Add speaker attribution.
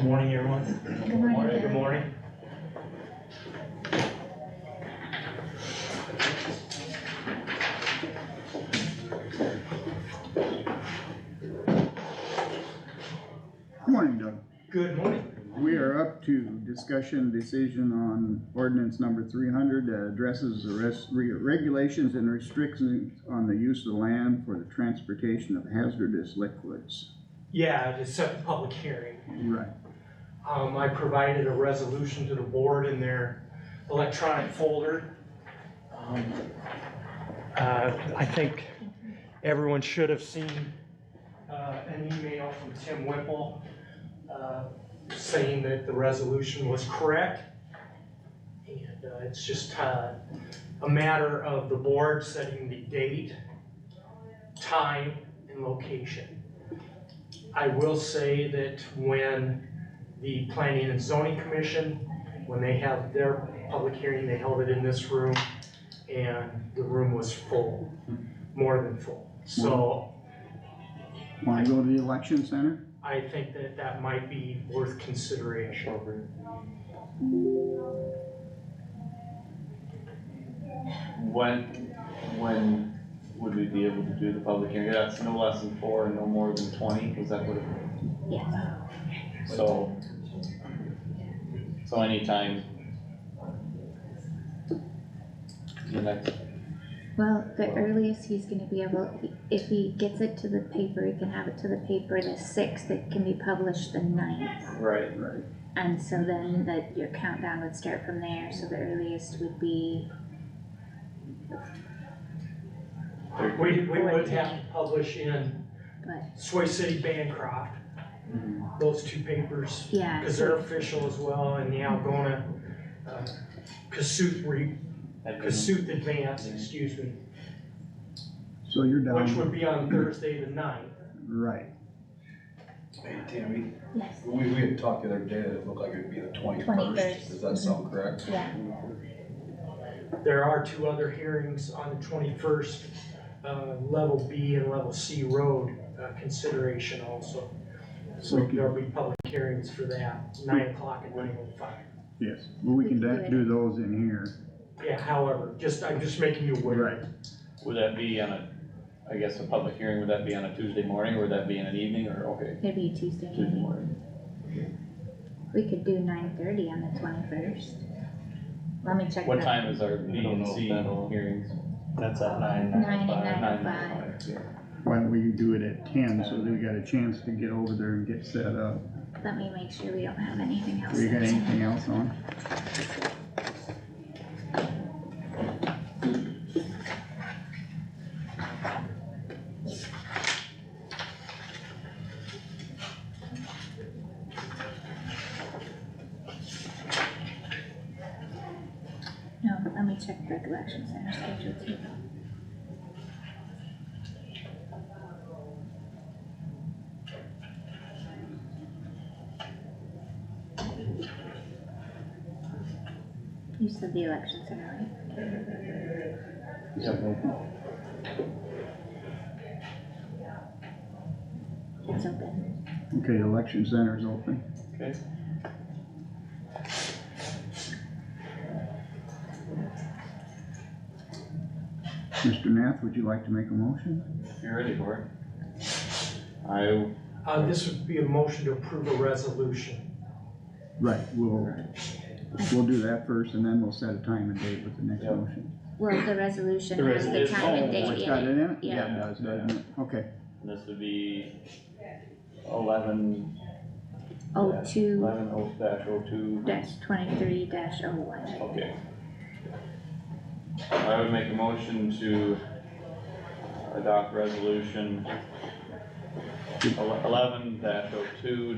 Speaker 1: Morning, everyone.
Speaker 2: Good morning,
Speaker 1: Good
Speaker 2: Gary.
Speaker 1: morning.
Speaker 3: Good Morning, Doug.
Speaker 1: Good morning.
Speaker 3: We are up to discussion decision on ordinance number three hundred that addresses the res- re- regulations and restrictions on the use of land for the transportation of hazardous liquids.
Speaker 1: Yeah, to set the public hearing.
Speaker 3: Right.
Speaker 1: Um, I provided a resolution to the board in their electronic folder. Um, uh, I think everyone should have seen, uh, an email from Tim Whipple, uh, saying that the resolution was correct. And, uh, it's just, uh, a matter of the board setting the date, time, and location. I will say that when the Planning and Zoning Commission, when they have their public hearing, they held it in this room, and the room was full, more than full. So
Speaker 3: Wanna go to the election center?
Speaker 1: I think that that might be worth consideration.
Speaker 4: When, when would we be able to do the public hearing? That's no less than four and no more than twenty, is that what it?
Speaker 2: Yes,
Speaker 4: So. So anytime. The next,
Speaker 2: well, the earliest he's gonna be able, if he gets it to the paper, he can have it to the paper the sixth, it can be published the ninth.
Speaker 4: right,
Speaker 3: Right.
Speaker 2: And so then that your countdown would start from there, so the earliest would be,
Speaker 4: there-
Speaker 1: We, we would have to publish in
Speaker 2: but,
Speaker 1: Sway City Bancroft,
Speaker 4: Mhm.
Speaker 1: those two papers,
Speaker 2: yeah,
Speaker 1: because they're official as well, and the Algona, uh, Cassuth re,
Speaker 4: That'd be-
Speaker 1: Cassuth Advance, excuse me,
Speaker 3: So you're
Speaker 1: which
Speaker 3: down,
Speaker 1: would be on Thursday the ninth.
Speaker 3: right.
Speaker 5: Hey Tammy,
Speaker 2: yes,
Speaker 5: we, we had talked the other day that it looked like it'd be the twenty-first,
Speaker 2: 21st.
Speaker 5: does that sound correct?
Speaker 2: yeah,
Speaker 1: There are two other hearings on the twenty-first, uh, level B and level C road, uh, consideration also. So
Speaker 3: We can-
Speaker 1: there'll be public hearings for that, nine o'clock and nine oh five.
Speaker 3: Yes, well, we can da- do those in here.
Speaker 1: Yeah, however, just, I'm just making you aware.
Speaker 3: Right.
Speaker 4: Would that be on a, I guess a public hearing, would that be on a Tuesday morning, or would that be in an evening, or, okay,
Speaker 2: it'd be Tuesday
Speaker 4: Tuesday
Speaker 2: morning.
Speaker 4: morning?
Speaker 2: We could do nine thirty on the twenty-first. Let me check
Speaker 4: What
Speaker 2: that.
Speaker 4: time is our B and C hearings?
Speaker 6: That's at nine,
Speaker 2: Nine and
Speaker 6: nine o'clock.
Speaker 2: nine oh
Speaker 4: Nine,
Speaker 2: five,
Speaker 4: yeah.
Speaker 3: Why don't we do it at ten so that we got a chance to get over there and get set up?
Speaker 2: let me make sure we don't have anything else.
Speaker 3: We got
Speaker 2: that's-
Speaker 3: anything else on?
Speaker 2: No, let me check the election center schedule too. You said the election center, right? It's open.
Speaker 3: Okay, election center's open.
Speaker 4: Okay.
Speaker 3: Mr. Nath, would you like to make a motion?
Speaker 4: You're ready for it? I,
Speaker 1: Uh, this would be a motion to approve a resolution.
Speaker 3: Right, we'll, we'll do that first and then we'll set a time and date with the next
Speaker 4: Yeah.
Speaker 3: motion.
Speaker 2: Well, the resolution
Speaker 4: The
Speaker 2: has the
Speaker 4: resolution.
Speaker 2: time and
Speaker 4: Oh,
Speaker 2: date
Speaker 3: It's
Speaker 2: in
Speaker 3: got
Speaker 2: it.
Speaker 3: it in it?
Speaker 2: yeah.
Speaker 3: it does, doesn't it? Okay,
Speaker 4: this would be eleven,
Speaker 2: Oh, two
Speaker 4: eleven oh dash oh two,
Speaker 2: dash twenty-three dash oh one.
Speaker 4: okay. I would make a motion to adopt resolution eleven dash oh two